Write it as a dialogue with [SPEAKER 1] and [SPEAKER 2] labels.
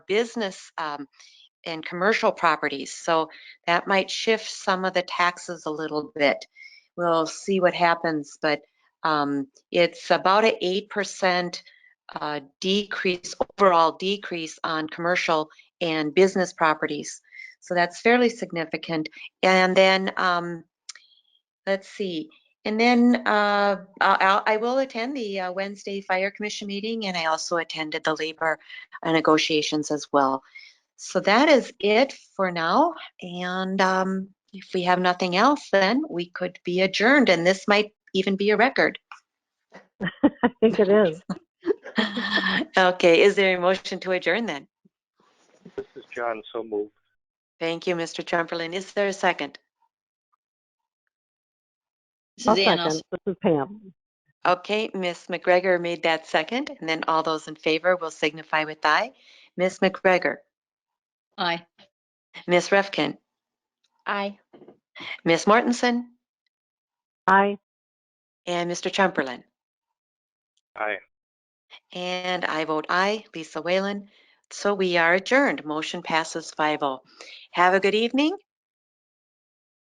[SPEAKER 1] business um, and commercial properties. So that might shift some of the taxes a little bit. We'll see what happens, but um, it's about an eight percent uh, decrease, overall decrease on commercial and business properties. So that's fairly significant. And then, um, let's see. And then uh, I'll, I will attend the uh, Wednesday Fire Commission meeting, and I also attended the labor uh, negotiations as well. So that is it for now. And um, if we have nothing else, then we could be adjourned, and this might even be a record.
[SPEAKER 2] I think it is.
[SPEAKER 1] okay, is there a motion to adjourn then?
[SPEAKER 3] This is John, so moved.
[SPEAKER 1] Thank you, Mr. Trumperlin. Is there a second?
[SPEAKER 2] I'll
[SPEAKER 4] Suzanne, I'll
[SPEAKER 2] second. This is Pam.
[SPEAKER 1] Okay, Ms. McGregor made that second, and then all those in favor will signify with aye. Ms. McGregor,
[SPEAKER 4] Aye.
[SPEAKER 1] Ms. Refkin. Aye. Ms. Mortensen
[SPEAKER 2] Aye.
[SPEAKER 1] and Mr. Trumperlin.
[SPEAKER 3] Aye.
[SPEAKER 1] And I vote aye, Lisa Whalen. So we are adjourned. Motion passes 5-0. oh. Have a good evening